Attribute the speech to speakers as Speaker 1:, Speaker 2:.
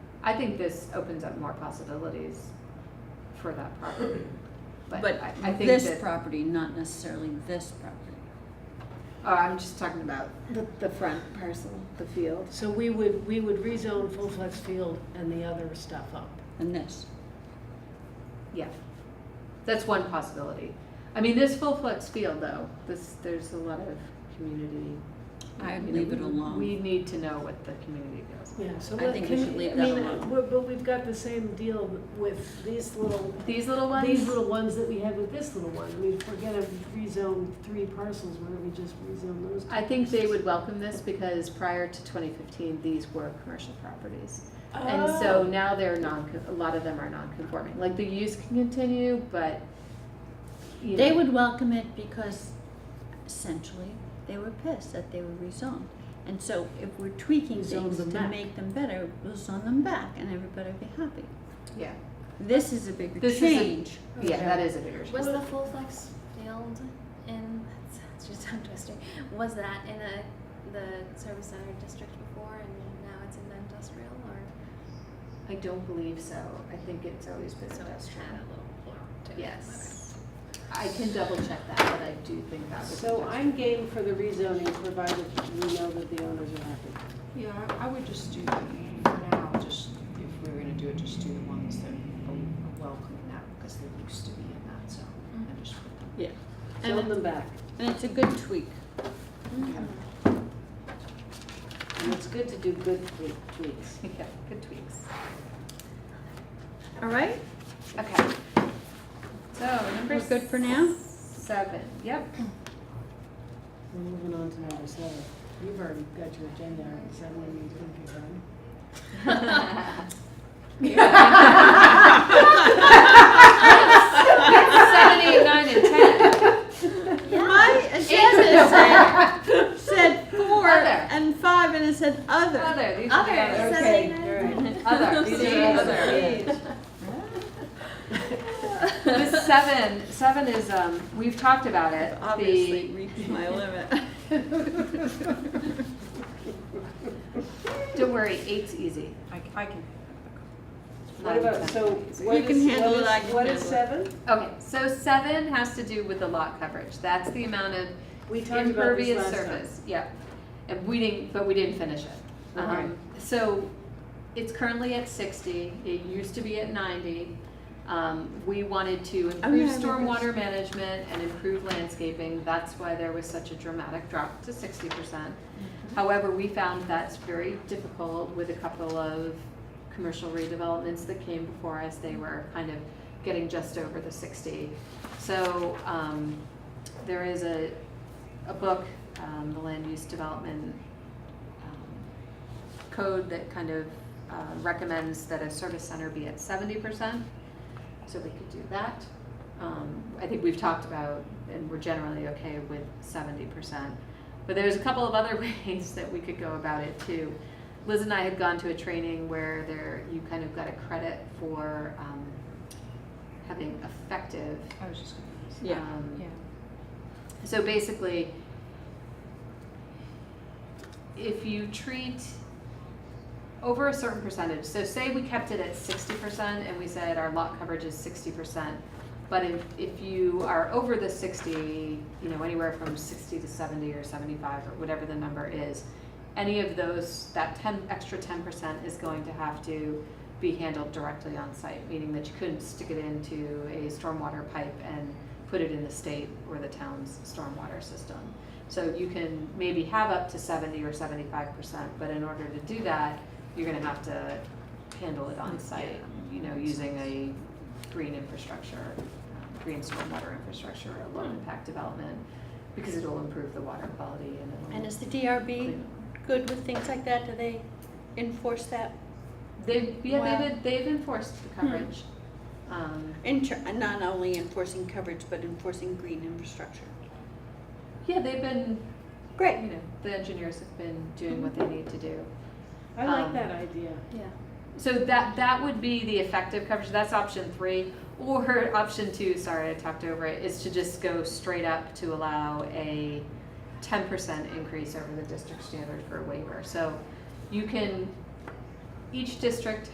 Speaker 1: I think this opens up more possibilities for that property. But I, I think
Speaker 2: this
Speaker 1: that,
Speaker 2: property, not necessarily this property.
Speaker 1: oh, I'm just talking about the, the front parcel, the field.
Speaker 3: So we would, we would rezone full flex field and the other stuff up.
Speaker 2: And this.
Speaker 1: Yeah, that's one possibility. I mean, this full flex field though, this, there's a lot of community.
Speaker 2: I'd
Speaker 1: you know,
Speaker 2: leave it alone.
Speaker 1: We need to know what the community feels.
Speaker 3: Yeah, so
Speaker 2: I
Speaker 3: let-
Speaker 2: think we
Speaker 3: can-
Speaker 2: should leave
Speaker 3: I
Speaker 2: that
Speaker 3: mean,
Speaker 2: alone.
Speaker 3: we're- But we've got the same deal with these little,
Speaker 1: These little ones?
Speaker 3: these little ones that we had with this little one. I mean, if we're gonna rezone three parcels, where we just rezone those?
Speaker 1: I think they would welcome this because prior to twenty fifteen, these were commercial properties. And
Speaker 4: Oh.
Speaker 3: Oh,
Speaker 1: so now they're non, a lot of them are non-conforming, like the use can continue, but, you know.
Speaker 2: They would welcome it because essentially they were pissed that they were rezoned. And so if we're tweaking
Speaker 3: Rezone
Speaker 2: things
Speaker 3: them
Speaker 2: to
Speaker 3: back.
Speaker 2: make them better, we'll zone them back and everybody will be happy.
Speaker 1: Yeah,
Speaker 2: This is a bigger
Speaker 1: This is a-
Speaker 2: change.
Speaker 1: yeah, that is a bigger
Speaker 5: Was
Speaker 1: change.
Speaker 5: the full flex field in, that's just tongue twister, was that in a, the service center district before and now it's in the industrial or?
Speaker 1: I don't believe so, I think it's always been
Speaker 5: So it's
Speaker 1: industrial.
Speaker 5: had a little floor to it.
Speaker 1: Yes. I can double check that, but I do think that was.
Speaker 3: So I'm game for the rezoning, provided we know that the owners are happy.
Speaker 4: Yeah, I I would just do, the- for now, just, if we were gonna do it, just do the ones that are are welcoming that, because they used to be in that zone,
Speaker 1: Mm-hmm.
Speaker 4: and just put them.
Speaker 2: Yeah. And
Speaker 3: Zone
Speaker 2: it-
Speaker 3: them back.
Speaker 2: and it's a good tweak.
Speaker 5: Mhm.
Speaker 3: And it's good to do good cle- tweaks.
Speaker 1: Yeah, good tweaks.
Speaker 2: All right?
Speaker 1: Okay. So number.
Speaker 2: We're good for now?
Speaker 1: Seven, yep.
Speaker 3: We're moving on to number seven. You've already got your agenda, is that when you think you're done?
Speaker 1: Seven, eight, nine, and ten.
Speaker 2: My agenda said, said four
Speaker 1: Other.
Speaker 2: and five and it said other.
Speaker 1: Other, these are the
Speaker 2: Other,
Speaker 1: others.
Speaker 2: seven,
Speaker 3: Okay,
Speaker 2: eight, nine, ten.
Speaker 3: all right.
Speaker 1: Other, these are the other.
Speaker 5: Mm.
Speaker 1: The seven, seven is, um, we've talked about it. The-
Speaker 2: Obviously reached my limit.
Speaker 1: Don't worry, eight's easy.
Speaker 4: I, c- I can.
Speaker 3: What about, so what
Speaker 2: You can
Speaker 3: is,
Speaker 2: handle it, I
Speaker 3: what is,
Speaker 2: can
Speaker 3: what is
Speaker 2: handle it.
Speaker 3: seven?
Speaker 1: Okay, so seven has to do with the lot coverage. That's the amount of
Speaker 3: We talked about this
Speaker 1: impervious
Speaker 3: last time.
Speaker 1: surface, yeah. And we didn't, but we didn't finish it. Um,
Speaker 3: Okay.
Speaker 1: So it's currently at sixty, it used to be at ninety. Um, we wanted to
Speaker 3: Oh,
Speaker 1: improve
Speaker 2: I remember
Speaker 1: stormwater management and improve landscaping, that's why there was such a dramatic drop to sixty percent. However, we found that's very difficult with a couple of commercial redevelopments that came before us, they were kind of getting just over the sixty. So, um, there is a, a book, um, the land use development um, code that kind of uh, recommends that a service center be at seventy percent. So we could do that. Um, I think we've talked about, and we're generally okay with seventy percent. But there's a couple of other ways that we could go about it too. Liz and I had gone to a training where there, you kind of got a credit for um, having effective
Speaker 4: I was just gonna.
Speaker 2: Yeah.
Speaker 1: um,
Speaker 4: Yeah.
Speaker 1: so basically, if you treat over a certain percentage, so say we kept it at sixty percent and we said our lot coverage is sixty percent. But if, if you are over the sixty, you know, anywhere from sixty to seventy or seventy-five or whatever the number is, any of those, that ten, extra ten percent is going to have to be handled directly on site, meaning that you couldn't stick it into a stormwater pipe and put it in the state or the town's stormwater system. So you can maybe have up to seventy or seventy-five percent, but in order to do that, you're gonna have to handle it on site, you know, using a green infrastructure, um, green stormwater infrastructure or low impact development, because it'll improve the water quality and it'll.
Speaker 2: And is the DRB
Speaker 1: clean up.
Speaker 2: good with things like that? Do they enforce that?
Speaker 1: They've, yeah,
Speaker 2: Wow. Hmm.
Speaker 1: they've, they've enforced the coverage. Um,
Speaker 2: In ter- not only enforcing coverage, but enforcing green infrastructure.
Speaker 1: yeah, they've been, you
Speaker 2: Great.
Speaker 1: know, the engineers have been doing what they need to do.
Speaker 3: I like
Speaker 1: Um,
Speaker 3: that idea.
Speaker 5: Yeah.
Speaker 1: So that, that would be the effective coverage, that's option three. Or option two, sorry, I talked over it, is to just go straight up to allow a ten percent increase over the district standard for a waiver. So you can, each district